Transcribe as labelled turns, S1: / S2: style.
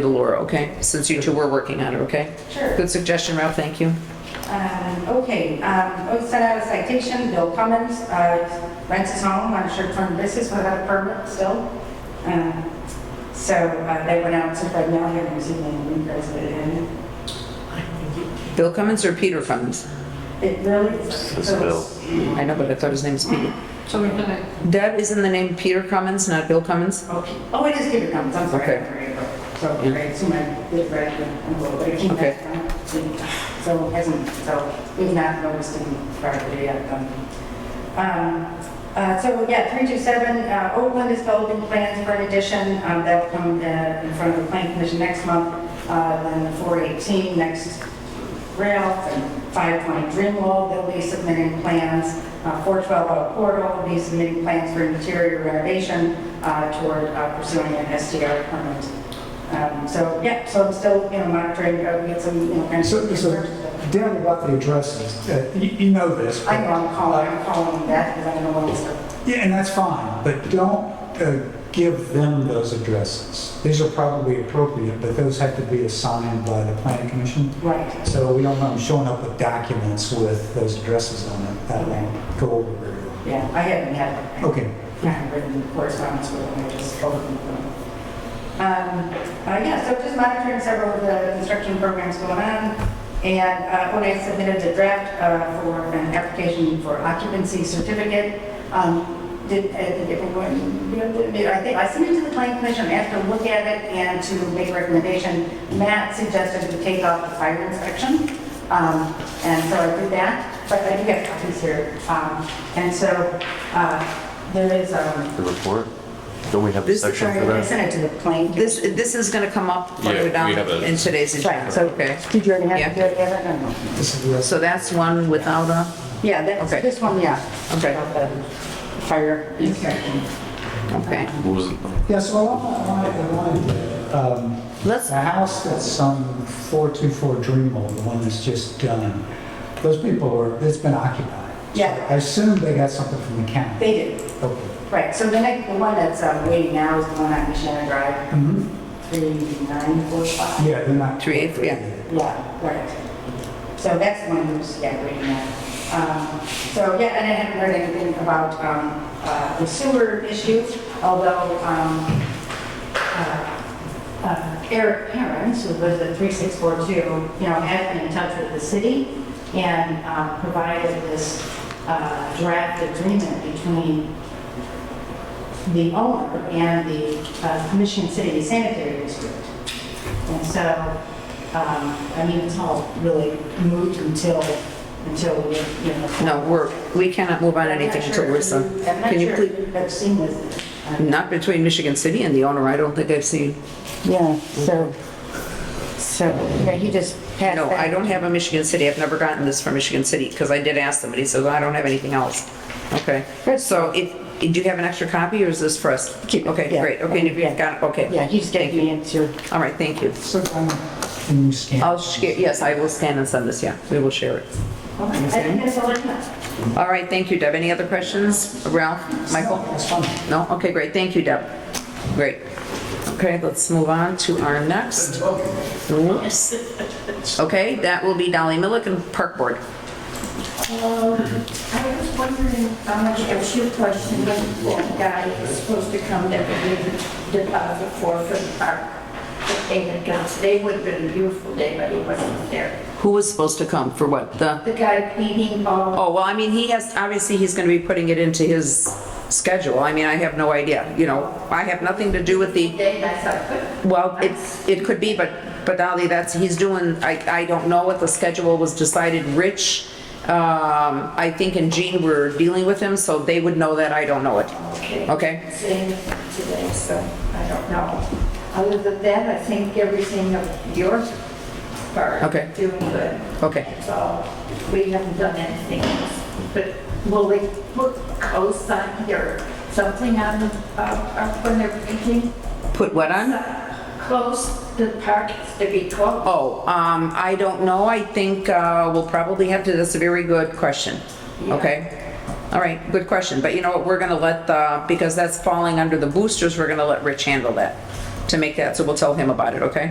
S1: to Laura, okay? Since you two were working on it, okay?
S2: Sure.
S1: Good suggestion, Ralph, thank you.
S2: Um, Okay, um, we sent out a citation, Bill Cummins, uh, rents his home on a short-term basis without a permit still. Um, So uh, they went out to Fred Mel here this evening and requested it.
S1: Bill Cummins or Peter Cummins?
S2: It really.
S3: It's Bill.
S1: I know, but I thought his name was Peter.
S2: So we can.
S1: Deb, isn't the name Peter Cummins, not Bill Cummins?
S2: Oh, it is Peter Cummins, I'm sorry.
S1: Okay.
S2: So, right, so my, good friend, I'm a little bit. he
S1: Okay.
S2: hasn't- So hasn't, so we've not noticed him privately yet. um, Um, uh, So, yeah, 327 uh, Oakland is developing plans for an addition. Um, That'll come uh, in front of the planning commission next month. Uh, Then the 418 next Ralph and Five Point Dreamwall, they'll be submitting plans. Uh, 412 Oak Portal will be submitting plans for interior renovation uh, toward uh, pursuing an SDR permit. Um, So, yeah, so I'm still, you know, monitoring, uh, we get some, you know, kind of.
S4: So, so Dan, about the addresses, uh, you, you know this. but-
S2: I know I'm calling, I'm calling that because I don't know what it's.
S4: Yeah, and that's fine, but don't uh, give them those addresses. These are probably appropriate, but those have to be assigned by the planning commission.
S2: Right.
S4: So we don't want them showing up with documents with those addresses on it. That won't go over very well.
S2: Yeah, I haven't had.
S4: Okay.
S2: kind of written correspondence with them, I just overlooked them. Um, uh, Yeah, so just monitoring several of the construction programs going on. And uh, when I submitted the draft uh, for an application for occupancy certificate, um, did, uh, did everyone, you know, did- I think, I submitted to the planning commission, asked to look at it and to make a recommendation. Matt suggested we take off the fire inspection, um, and so I did that, but I do have copies here. Um, And so uh, there is, um,
S3: The report? Don't we have a
S1: This-
S3: section
S2: sorry,
S3: for
S2: I
S3: that?
S2: sent it to the planning.
S1: This, this is gonna come up further
S5: we
S1: down
S5: have a-
S1: in today's agenda.
S2: Right, so,
S1: Okay.
S2: did you already have,
S1: Yeah.
S2: do you already have it? I don't know.
S4: This is the rest.
S1: So that's one without a,
S2: Yeah, that's,
S1: Okay.
S2: this one, yeah.
S1: Okay.
S2: About the Fire inspection.
S1: okay.
S3: What was it?
S4: Yeah, so I wanted, I wanted, um,
S1: Let's,
S4: The house that's on 424 Dreamwell, the one that's just done, those people are, it's been occupied.
S2: Yeah.
S4: I assume they got something from the county.
S2: They did,
S4: Okay.
S2: right, so the next, the one that's um, waiting now is the one on Michiana Drive,
S4: Mhm.
S1: Mm-hmm.
S2: 3945.
S4: Yeah, they're not.
S1: Three eighths, yeah.
S2: Yeah, right. So that's the one who's, yeah, waiting now. Um, So, yeah, and I haven't heard anything about um, uh, the sewer issue, although um, uh, uh, Eric Parents, who lives at 3642, you know, has been in touch with the city and um, provided this uh, draft agreement between the owner and the uh, Michigan City Sanitary District. And so, um, I mean, it's all really moved until, until, we, you know.
S1: no, we're, we cannot move on
S2: I'm not
S1: anything until
S2: sure if
S1: we're,
S2: you-
S1: some-
S2: I'm not
S1: can you
S2: sure
S1: please?
S2: if you have seen this. uh,
S1: Not between Michigan City and the owner, I don't think I've seen.
S2: Yeah, so, so, yeah, he just passed
S1: No, I
S2: that.
S1: don't have a Michigan City, I've never gotten this from Michigan City, because I did ask them, and he says, I don't have anything else. Okay, so if, do you have an extra copy, or is this for us?
S2: Keep it,
S1: Okay,
S2: yeah.
S1: great, okay, and if
S2: Yeah.
S1: you've got, it, okay.
S2: Yeah, he just gave
S1: Thank you.
S2: me into,
S1: All right, thank you.
S4: So, um, can you scan?
S1: I'll, sh- yes, I will scan and send this, yeah, we will share it.
S2: I think that's all I have.
S1: All right, thank you, Deb. Any other questions? Ralph, Michael?
S4: That's fine.
S1: No? Okay, great, thank you, Deb. Great. Okay, let's move on to our next. Whoops. Okay, that will be Dolly Milliken, Park Board.
S6: I was wondering how much, a few questions, that guy is supposed to come that would leave a deposit for for the park. The payment comes, today would have been a beautiful day, but he wasn't there.
S1: Who was supposed to come for what? The,
S6: The guy painting all,
S1: oh, well, I mean, he has, obviously, he's going to be putting it into his schedule. I mean, I have no idea, you know, I have nothing to do with the
S6: day, I thought, but
S1: Well, it's, it could be, but, but Dolly, that's, he's doing, I, I don't know what the schedule was decided. Rich, um, I think and Jean were dealing with him, so they would know that, I don't know it.
S6: okay.
S1: Okay?
S6: Same today, so I don't know. Other than that, I think everything of yours are
S1: Okay.
S6: doing good.
S1: Okay.
S6: So we haven't done anything else, but will they put cosign or something on the, uh, up when they're painting?
S1: Put what on?
S6: Close, the park has to be closed.
S1: Oh, um, I don't know, I think, uh, we'll probably have to, that's a very good question. Okay? All right, good question, but you know what, we're gonna let the, because that's falling under the boosters, we're gonna let Rich handle that, to make that, so we'll tell him about it, okay?